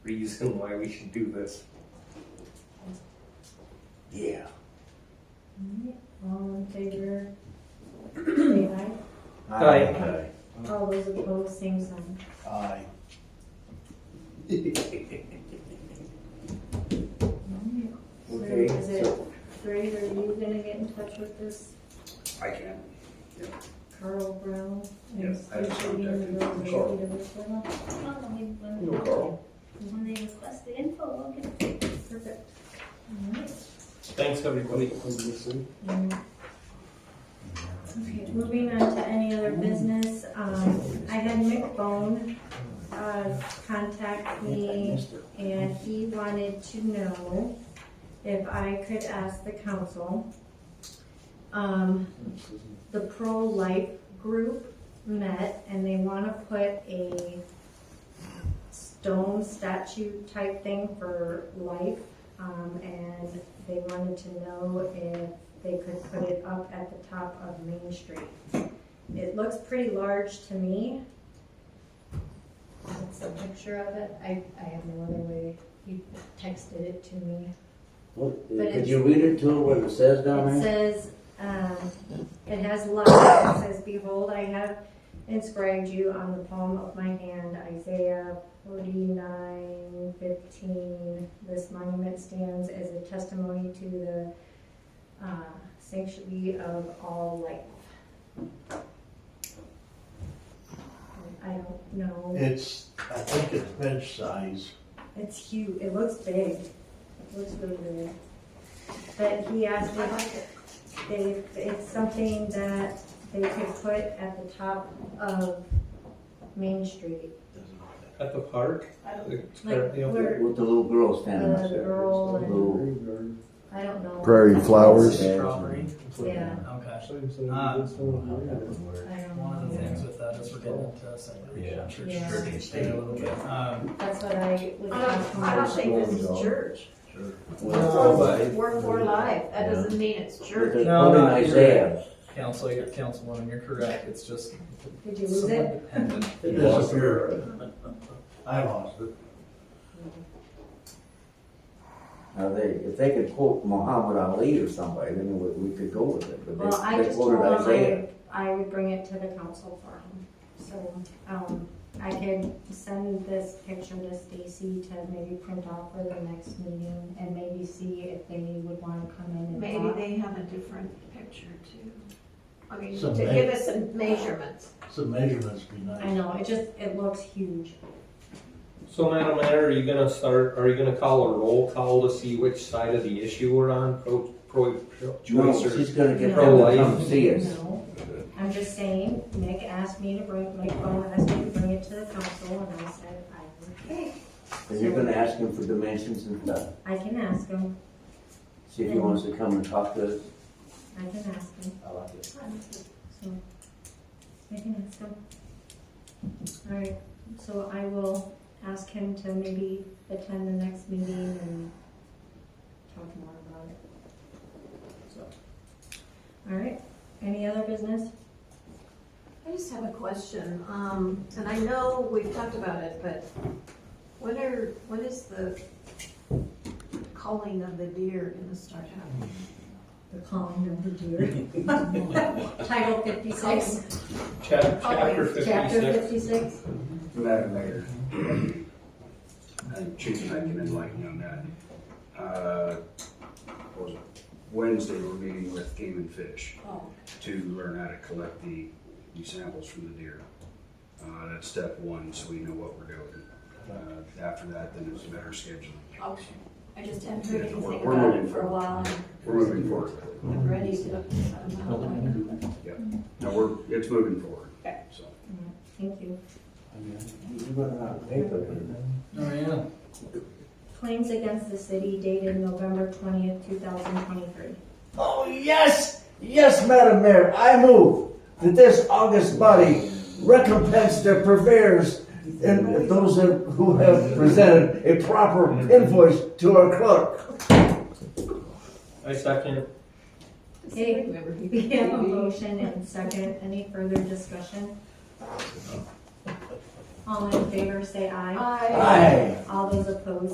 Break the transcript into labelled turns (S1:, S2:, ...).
S1: reason why we should do this. Yeah.
S2: All in favor? Say aye.
S1: Aye.
S2: All those opposed, same sign.
S3: Aye.
S2: So
S1: Okay,
S2: Is it,
S1: so
S2: Greg, are you gonna get in touch with this
S1: I can.
S2: Carl Brown? and
S1: Yes, I just
S2: see if he can go
S1: contacted
S2: to
S1: Carl.
S2: the hospital?
S4: When
S1: Hello, Carl.
S4: when they request the info, I'll get it.
S2: Perfect. All right.
S5: Thanks, everybody.
S2: Mm. Okay, moving on to any other business, um, I had Mick Bone, uh, contact me and he wanted to know if I could ask the council, um, the pro-life group met and they wanna put a stone statue type thing for life, um, and they wanted to know if they could put it up at the top of Main Street. It looks pretty large to me. That's a picture of it, I, I have no other way, you texted it to me.
S6: Well,
S2: But
S6: uh, Could you read it to her what it says down
S2: It
S6: there?
S2: says, um, it has love, it says, behold, I have inscribed you on the palm of my hand, Isaiah forty-nine fifteen. This monument stands as a testimony to the, uh, sanctity of all life. I don't know,
S3: It's, I think it's bench size.
S2: it's huge, it looks big, it looks really big. But he asked if they, it's something that they could put at the top of Main Street.
S5: At the park? It's
S2: Like,
S5: currently open.
S2: where
S6: With the little girl standing
S2: the
S6: up there.
S2: girl and,
S6: Little-
S2: I don't know.
S7: Prairie flowers.
S6: Strawberry.
S2: Yeah,
S8: Okay.
S5: Uh,
S2: I don't
S8: One of the
S2: know.
S8: things with that is we're getting into separation.
S5: Yeah.
S8: Church,
S2: Yeah.
S8: church and state a little bit. Um,
S2: That's what I was talking
S4: I don't
S2: about.
S4: think this is church.
S5: Oh,
S6: Well,
S5: but-
S4: We're for life. That doesn't mean it's
S6: With
S4: church.
S6: the
S8: No,
S6: quote in
S8: no, you're
S6: Isaiah.
S8: council, you're councilwoman, you're correct. It's just
S2: Did you lose
S8: somewhat
S2: it?
S8: dependent.
S3: It disappeared. I lost it.
S6: Now, they, if they could quote Muhammad Ali or somebody, then we, we could go with it, but
S2: Well, I
S6: they, they
S2: just told
S6: quoted
S2: him
S6: Isaiah.
S2: I, I would bring it to the council for him. So, um, I could send this picture to Stacy to maybe print out for the next meeting and maybe see if they would wanna come in and
S4: Maybe
S2: talk.
S4: they have a different picture too. I mean, to
S3: Some
S4: give
S3: ma-
S4: us some measurements.
S3: Some measurements be nice.
S2: I know, it just, it looks huge.
S5: So Madam Mayor, are you gonna start, are you gonna call a roll call to see which side of the issue we're on? Pro, pro, pro-
S6: No,
S5: choice or?
S6: she's gonna get them
S2: Oh,
S5: Pro-life.
S6: to come see us.
S2: No, I'm just saying, Nick asked me to bring, Nick Bone asked me to bring it to the council, and I said, I, okay,
S6: And you're gonna ask him for dimensions and stuff,
S2: I can ask him,
S6: see if he wants to come and talk to us.
S2: I can ask him,
S6: I like it.
S2: so, I can ask him. All right, so I will ask him to maybe attend the next meeting and talk more about it. So, all right, any other business?
S4: I just have a question, um, and I know we've talked about it, but when are, when is the calling of the deer gonna start happening?
S2: The calling of the deer. Title fifty-six.
S5: Chap- Chapter
S2: Chapter
S5: fifty-six.
S2: fifty-six,
S1: Madam Mayor. And Chief, I can enlighten you on that. Uh, what was it? Wednesday, we're meeting with Game and Fish
S4: Oh.
S1: to learn how to collect the, the samples from the deer. Uh, that's step one, so we know what we're doing. Uh, after that, then it's a matter of scheduling.
S4: Okay, oh, I just haven't heard
S1: Yeah, we're-
S4: anything
S1: we're
S4: about
S1: moving
S4: it for a
S1: forward. Mm-hmm.
S4: while,
S1: We're moving forward with it.
S4: and I'm ready to, I don't know, like,
S1: No, we're, it's moving forward,
S4: Okay.
S1: so.
S2: thank you.
S6: You better not pay for it.
S8: Oh, yeah.
S2: Claims against the city dated November twentieth, two thousand twenty-three.
S6: Oh, yes, yes, Madam Mayor, I move that this august body recompense their purveyors and those that- who have presented a proper invoice to our clerk.
S5: I second.
S4: Hey, remember he-
S2: We have a motion and second, any further discussion? All in favor, say aye.
S4: I.
S6: Aye.
S2: All those opposed,